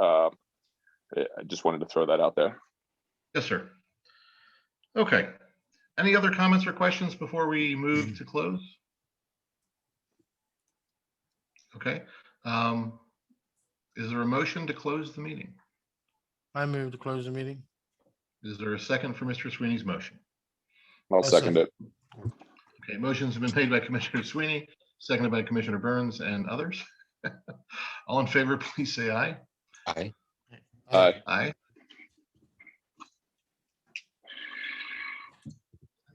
Um, I just wanted to throw that out there. Yes, sir. Okay. Any other comments or questions before we move to close? Okay. um, Is there a motion to close the meeting? I move to close the meeting. Is there a second for Mr. Sweeney's motion? I'll Yes, second sir. it. Okay, motions have been made by Commissioner Sweeney, seconded by Commissioner Burns and others. All in favor, please say aye. Aye. Aye. Aye.